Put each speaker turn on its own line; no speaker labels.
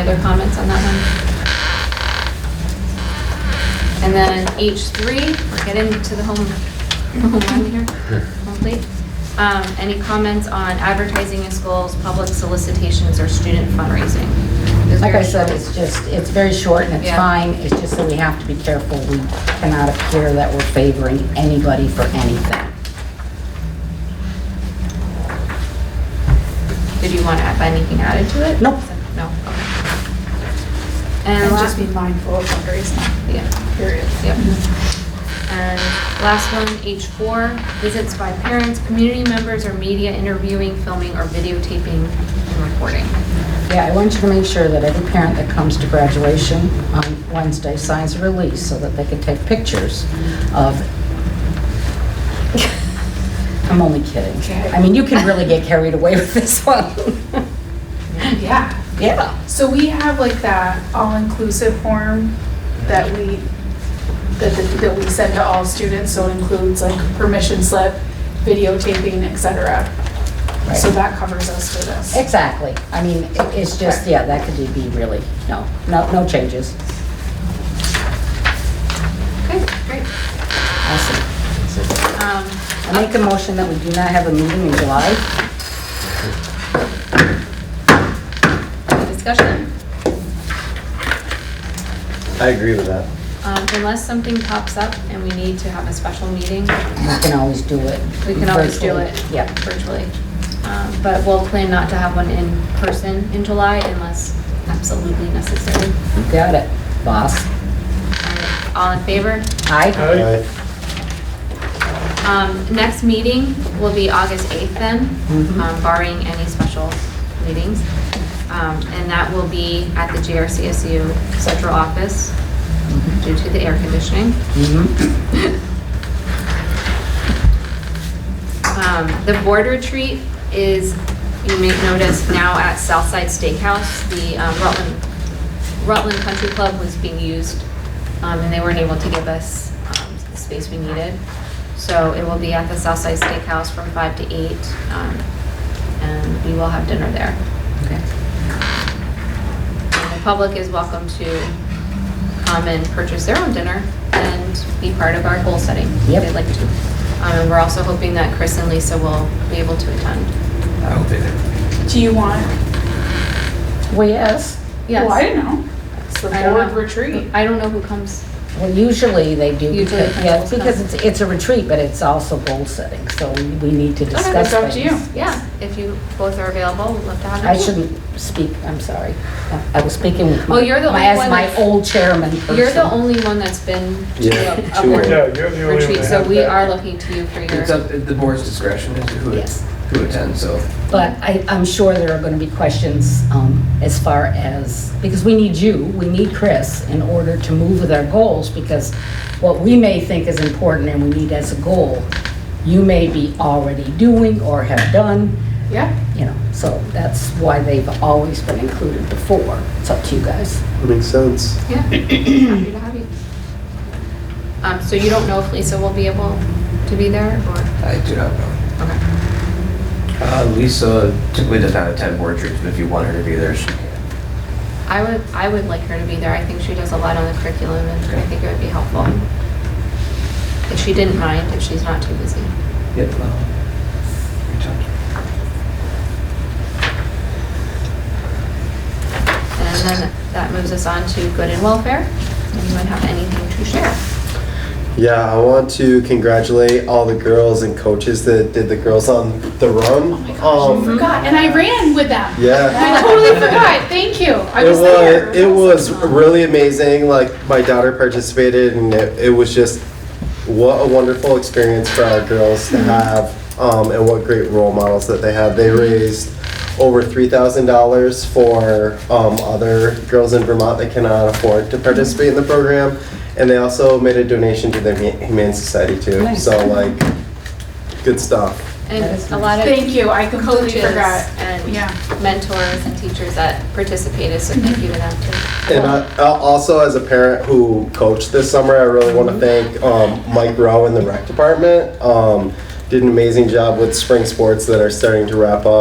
other comments on that one? And then H3, we're getting to the home, home run here, home plate. Um, Any comments on advertising in schools, public solicitations, or student fundraising? Those are
Like I
your
said,
short-
it's just, it's very short and it's
Yeah.
fine, it's just that we have to be careful. We cannot appear that we're favoring anybody for anything.
Did you want to have anything added to it?
Nope.
No, okay. And
And
last,
just be mindful of fundraising,
yeah.
period.
Yep. And last one, H4, visits by parents, community members, or media interviewing, filming, or videotaping and recording.
Yeah, I want you to make sure that every parent that comes to graduation on Wednesday signs a release so that they can take pictures of... I'm only kidding.
Okay.
I mean, you can really get carried away with this one.
Yeah.
Yeah.
So we have like that all-inclusive form that we, that, that- that we send to all students, so it includes like permission slip, videotaping, et cetera. So
Right.
that covers us for this.
Exactly. I mean, it- it's just, yeah, that could be really, no, no, no changes.
Okay, great.
Awesome.
Um,
I make a motion that we do not have a meeting in July.
any Discussion,
I agree with that.
Um, unless something pops up and we need to have a special meeting,
We can always do it.
we can always do
virtually.
it.
Yeah.
Virtually. Um, But we'll plan not to have one in person in July unless absolutely necessary.
You Got it, boss.
All right, All in favor?
Aye?
Aye.
Um, Next meeting will be August 8th then,
Mhm.
um, barring any special meetings. Um, And that will be at the GRCSU central office due to the air conditioning.
Mhm.
Um, The board retreat is, you may notice, now at Southside Steakhouse. The um, Rutland, Rutland Country Club was being used, um, and they weren't able to give us um, the space we needed. So it will be at the Southside Steakhouse from five to eight, um, and we will have dinner there.
Okay.
And The public is welcome to come and purchase their own dinner and be part of our goal setting. if
Yep.
They'd like to. Um, And we're also hoping that Chris and Lisa will be able to attend.
I'll be there.
Do you want,
Well, yes.
well, I
Yes.
don't know. It's the
I don't
board
know.
retreat.
I don't know who comes.
Well, usually they do.
Usually
because-
the
Yeah,
principals come.
because it's, it's a retreat, but it's also goal setting, so we we need to discuss
that's
things.
up to you.
Yeah, if you both are available, we'd love to have you.
I shouldn't speak, I'm sorry. I was speaking with. my-
Oh, you're the
my-
only one
As my
that's-
old chairman person.
You're the only one that's been to
Yeah,
a- a
two.
board
Yeah, you're the only one
retreat,
that
so
has
we
that.
are looking to you for
It's
your,
up, the board's discretion as to who,
Yes.
who attends, so.
But I, I'm sure there are going to be questions um, as far as, because we need you, we need Chris in order to move with our goals, because what we may think is important and we need as a goal, you may be already doing or have done,
Yeah,
you know, so that's why they've always been included before. It's up to you guys.
Makes sense.
yeah, happy to have you. Um, so you don't know if Lisa will be able to be there or,
I do not know.
okay.
Uh, Lisa typically does not attend board retreats, but if you want her to be there, she can.
I would, I would like her to be there. I think she does a lot on the curriculum and I think it would be helpful. If she didn't mind, if she's not too busy.
Yep. uh, reach out to her.
And then that moves us on to good and welfare. Anyone have anything to share?
Yeah, I want to congratulate all the girls and coaches that did the girls on the run. um,
forgot, and I ran with them.
Yeah.
I totally forgot, thank you. I
It
was there.
was, it was really amazing. Like, my daughter participated, and it, it was just what a wonderful experience for our girls to have, um, and what great role models that they had. They raised over $3,000 for um, other girls in Vermont that cannot afford to participate in the program. And they also made a donation to the Huma- Humane Society, too.
Nice.
So, like, good stuff.
And
That is
a lot
Thank
of
you, I completely
coaches
forgot.
and
Yeah.
mentors and teachers that participated, so thank you to them too.
And uh, I, I- also, as a parent who coached this summer, I really want to thank um, Mike Rowe in the rec department. Um, did an amazing job with spring sports that are starting to wrap up.